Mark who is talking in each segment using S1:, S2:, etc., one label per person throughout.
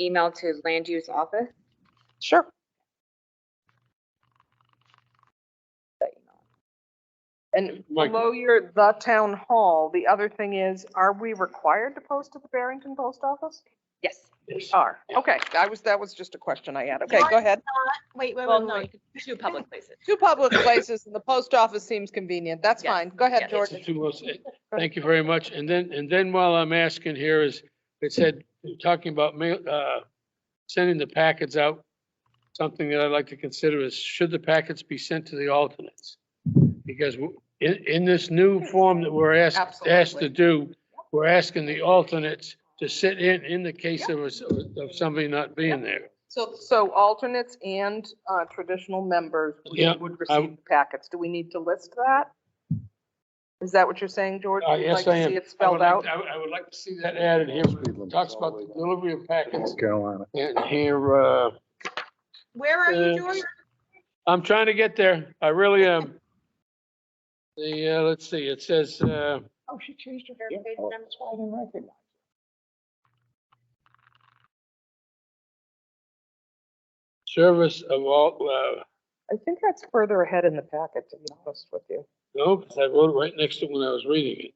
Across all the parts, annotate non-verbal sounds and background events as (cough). S1: email to land use office?
S2: Sure.
S1: That email.
S2: And
S3: Mike.
S2: below your, the town hall, the other thing is, are we required to post to the Barrington Post Office?
S1: Yes.
S2: We are. Okay, I was, that was just a question I had. Okay, go ahead.
S4: Wait, wait,
S5: Well,
S4: wait,
S5: no,
S4: wait.
S5: you could- two public places.
S2: Two public places and the post office seems convenient. That's
S5: Yes,
S2: fine. Go ahead,
S5: yes.
S3: It's
S2: Jordan.
S3: the two most- Thank you very much. And then, and then while I'm asking here is, it said, talking about mail, uh, sending the packets out. Something that I'd like to consider is should the packets be sent to the alternates? Because w- in, in this new form that we're asked, asked to
S2: Absolutely.
S3: do, we're asking the alternates to sit in, in the case of, us- of somebody not being there.
S2: So, so alternates and uh, traditional members would-
S3: Yeah,
S2: would
S3: I-
S2: receive packets. Do we need to list that? Is that what you're saying, Jordan?
S3: Uh,
S2: You'd
S3: yes,
S2: like to
S3: I am.
S2: see it
S3: I would
S2: spelled
S3: like-
S2: out?
S3: I would, I would like to see that added here. Talks about the delivery of packets
S6: Carolina.
S3: and here, uh,
S4: Oh. Where are
S3: Uh,
S4: you, George?
S3: I'm trying to get there. I really am. The, uh, let's see, it says, uh,
S4: Oh, she changed her
S6: Yeah,
S4: page
S6: oh,
S4: number.
S6: that's why I didn't recognize.
S3: service of all, uh,
S2: I think that's further ahead in the packet, to be honest with you.
S3: no, 'cause I wrote it right next to when I was reading it.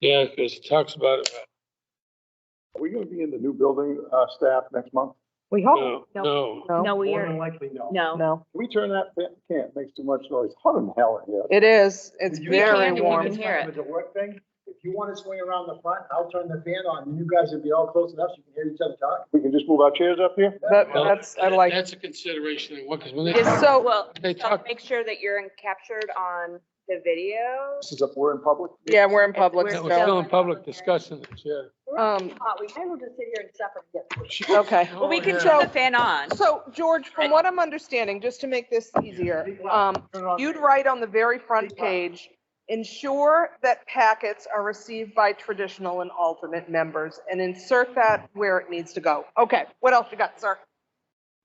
S3: Yeah, because it talks about, it. uh,
S6: Are we gonna be in the new building, uh, staff next month?
S2: We hope.
S3: no, no.
S2: Oh, No?
S5: No, we
S6: More than
S5: are,
S6: likely, no.
S5: no.
S2: No.
S6: Can we turn that, fan- can't, makes too much noise, hot in hell in here.
S2: It is. It's
S6: You
S2: very
S5: can, you
S2: warm.
S5: can hear it.
S6: It's a work thing, if you wanna swing around the front, I'll turn the fan on, and you guys will be all close enough, so you can hear each other talk. We can just move our chairs up here?
S2: That, that's, I like,
S3: That's a consideration, and what, because when they,
S2: it's so,
S1: Well,
S3: they
S1: so
S3: talk,
S1: make sure that you're in- captured on the video.
S6: This is up, we're in public?
S2: yeah, we're in public,
S3: that
S2: so,
S3: was still in public discussing this, yeah.
S2: um,
S4: We might as well just sit here and suffer.
S2: okay.
S3: Oh,
S5: Well, we can
S3: yeah.
S5: turn the fan on.
S2: So, George, from what I'm understanding, just to make this easier, um, you'd write on the very front page, ensure that packets are received by traditional and alternate members, and insert that where it needs to go. Okay, what else you got, sir? (laughs)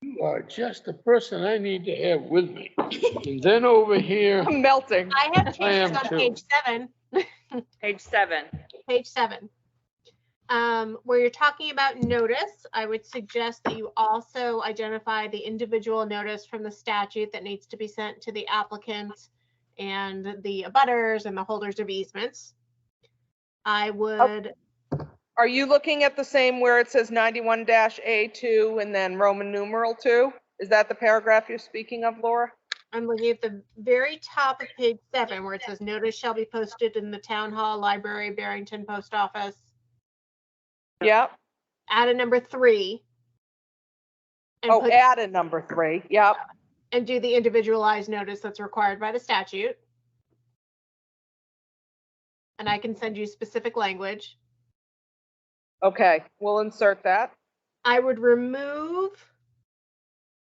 S3: You are just the person I need to have with me. And then over here,
S2: I'm melting.
S4: I have
S3: (laughs) I am
S4: changes on
S3: too.
S4: page seven,
S1: Page seven.
S4: page seven. Um, where you're talking about notice, I would suggest that you also identify the individual notice from the statute that needs to be sent to the applicant and the abutters and the holders of easements. I would,
S2: Are you looking at the same where it says ninety-one A two and then Roman numeral two? Is that the paragraph you're speaking of, Laura?
S4: I'm looking at the very top of page seven where it says notice shall be posted in the town hall, library, Barrington post office.
S2: Yep.
S4: add a number three. And
S2: Oh,
S4: put,
S2: add a number three. Yep.
S4: and do the individualized notice that's required by the statute. And I can send you specific language.
S2: Okay, we'll insert that.
S4: I would remove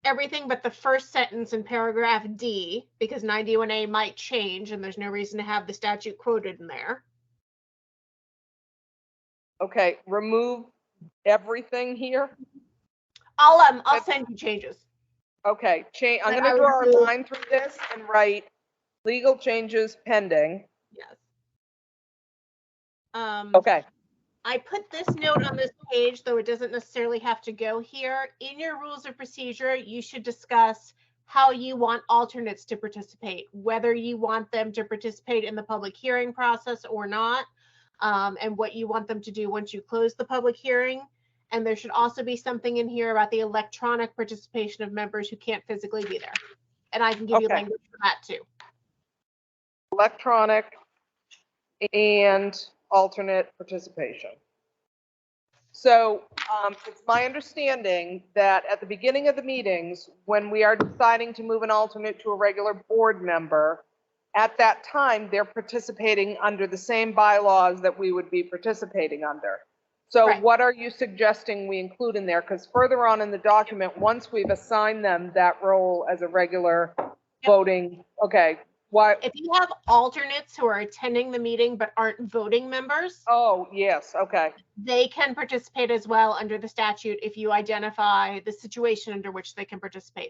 S4: everything but the first sentence in paragraph D because 91A might change and there's no reason to have the statute quoted in there.
S2: Okay, remove everything here.
S4: I'll um I'll
S2: But-
S4: send you changes.
S2: Okay, change, I'm
S4: But
S2: gonna
S4: I would
S2: draw a
S4: remove-
S2: line through this and write legal changes pending.
S4: Yes. Um
S2: Okay,
S4: I put this note on this page, though it doesn't necessarily have to go here. In your rules of procedure, you should discuss how you want alternates to participate, whether you want them to participate in the public hearing process or not, um, and what you want them to do once you close the public hearing. And there should also be something in here about the electronic participation of members who can't physically be there. And I can give you
S2: Okay.
S4: language for that too.
S2: electronic and alternate participation. So, um, it's my understanding that at the beginning of the meetings, when we are deciding to move an alternate to a regular board member, at that time, they're participating under the same bylaws that we would be participating under. So
S4: Right.
S2: what are you suggesting we include in there? Because further on in the document, once we've assigned them that role as a regular voting, okay, why,
S4: If you have alternates who are attending the meeting but aren't voting members,
S2: oh, yes, okay.
S4: they can participate as well under the statute if you identify the situation under which they can participate.